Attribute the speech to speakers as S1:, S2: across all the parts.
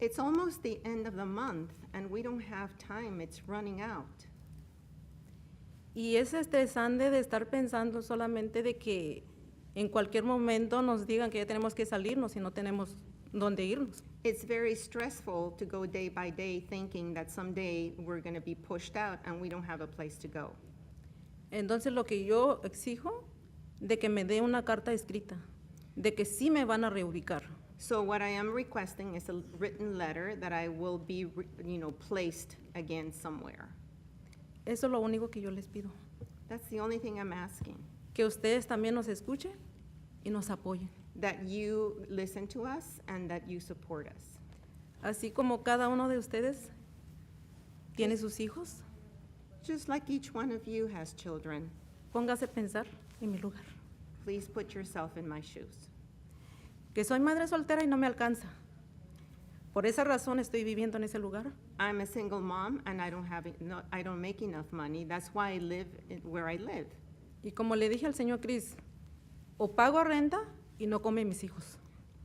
S1: It's almost the end of the month, and we don't have time, it's running out.
S2: Y es estresante de estar pensando solamente de que en cualquier momento nos digan que ya tenemos que salirnos y no tenemos dónde irnos.
S1: It's very stressful to go day by day thinking that someday we're going to be pushed out and we don't have a place to go.
S2: Entonces lo que yo exijo de que me dé una carta escrita, de que sí me van a reubicar.
S1: So what I am requesting is a written letter that I will be, re- you know, placed again somewhere.
S2: Eso es lo único que yo les pido.
S1: That's the only thing I'm asking,
S2: Que ustedes también nos escuchen y nos apoyen.
S1: that you listen to us and that you support us.
S2: Así como cada uno de ustedes tiene sus hijos,
S1: Just like each one of you has children,
S2: póngase a pensar en mi lugar.
S1: please put yourself in my shoes.
S2: Que soy madre soltera y no me alcanza. Por esa razón estoy viviendo en ese lugar.
S1: I'm a single mom and I don't have, en- no, I don't make enough money. That's why I live in- where I live.
S2: Y como le dije al señor Cris, o pago renta y no come mis hijos.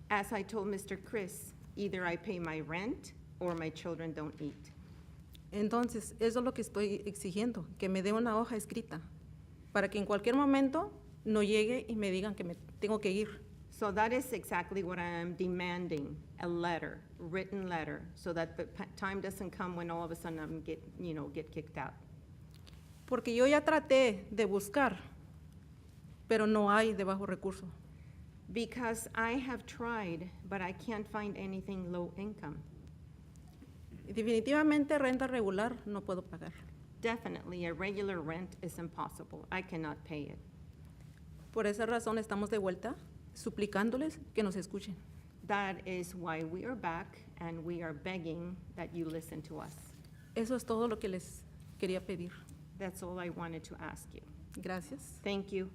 S1: As I told Mr. Chris, either I pay my rent or my children don't eat.
S2: Entonces, eso es lo que estoy exigiendo, que me dé una hoja escrita, para que en cualquier momento no llegue y me digan que me tengo que ir.
S1: So that is exactly what I am demanding, a letter, written letter, so that the pa- time doesn't come when all of a sudden I'm get, you know, get kicked out.
S2: Porque yo ya traté de buscar, pero no hay de bajo recurso.
S1: Because I have tried, but I can't find anything low income.
S2: Y definitivamente renta regular no puedo pagar,
S1: Definitely, a regular rent is impossible. I cannot pay it.
S2: Por esa razón estamos de vuelta suplicándoles que nos escuchen.
S1: That is why we are back and we are begging that you listen to us.
S2: Eso es todo lo que les quería pedir.
S1: That's all I wanted to ask you.
S2: Gracias.
S1: Thank you.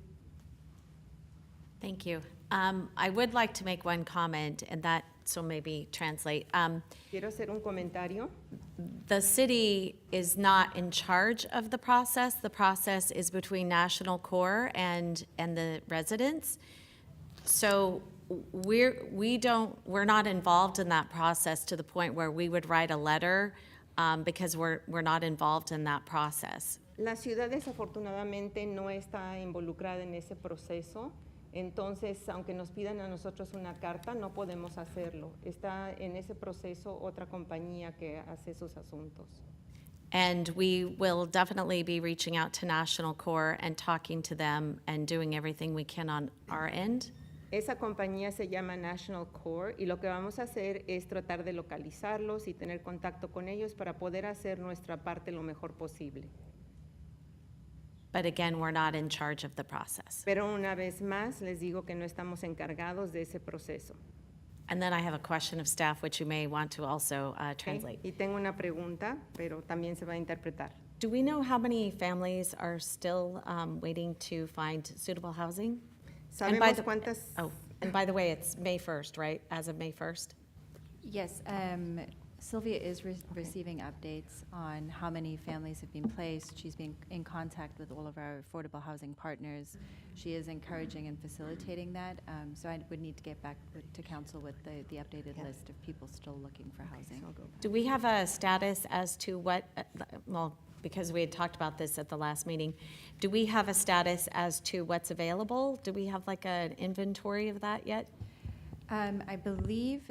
S3: Thank you. Um, I would like to make one comment, and that, so maybe translate. Um,
S1: Quiero hacer un comentario.
S3: The city is not in charge of the process. The process is between National Corps and, and the residents. So we're, we don't, we're not involved in that process to the point where we would write a letter um, because we're, we're not involved in that process.
S1: La ciudad desafortunadamente no está involucrada en ese proceso, entonces aunque nos pidan a nosotros una carta, no podemos hacerlo. Está en ese proceso otra compañía que hace esos asuntos.
S3: And we will definitely be reaching out to National Corps and talking to them and doing everything we can on our end.
S1: Esa compañía se llama National Core y lo que vamos a hacer es tratar de localizarlos y tener contacto con ellos para poder hacer nuestra parte lo mejor posible.
S3: But again, we're not in charge of the process.
S1: Pero una vez más les digo que no estamos encargados de ese proceso.
S3: And then I have a question of staff, which you may want to also uh,
S1: ¿ok?
S3: translate.
S1: Y tengo una pregunta, pero también se va a interpretar.
S3: Do we know how many families are still um, waiting to find suitable housing? And by
S1: ¿Sabemos
S3: the-
S1: cuántas?
S3: Oh, and by the way, it's May 1st, right? As of May 1st?
S4: Yes, um, Sylvia is re- receiving updates on how many families have been placed. She's been in contact with all of our affordable housing partners. She is encouraging and facilitating that, um, so I would need to get back with- to council with the, the updated list of people still looking for housing.
S3: Do we have a status as to what, uh, well, because we had talked about this at the last meeting, do we have a status as to what's available? Do we have like an inventory of that yet?
S4: Um, I believe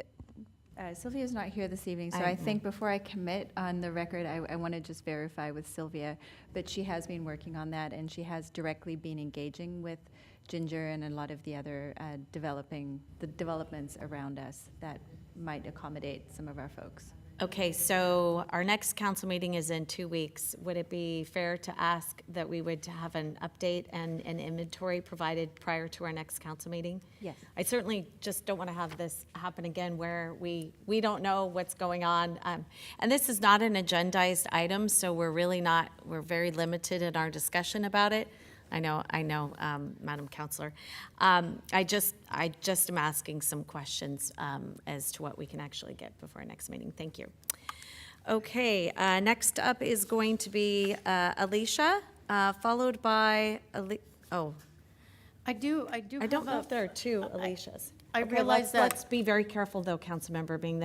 S4: uh, Sylvia's not here this evening, so
S3: I-
S4: I think before I commit on the record, I, I want to just verify with Sylvia. But she has been working on that, and she has directly been engaging with Ginger and a lot of the other uh, developing, the developments around us that might accommodate some of our folks.
S3: Okay, so our next council meeting is in two weeks. Would it be fair to ask that we would have an update and an inventory provided prior to our next council meeting?
S4: Yes.
S3: I certainly just don't want to have this happen again where we, we don't know what's going on. Um, And this is not an agendized item, so we're really not, we're very limited in our discussion about it. I know, I know, um, Madam Counselor. Um, I just, I just am asking some questions um, as to what we can actually get before our next meeting. Thank you. Okay, uh, next up is going to be uh, Alicia, uh, followed by, Ali- oh,
S5: I do, I do
S3: I don't
S5: have a-
S3: know if there are two Alishas.
S5: I
S3: Okay,
S5: realize
S3: let's-
S5: that-
S3: Let's be very careful, though, Councilmember Bing,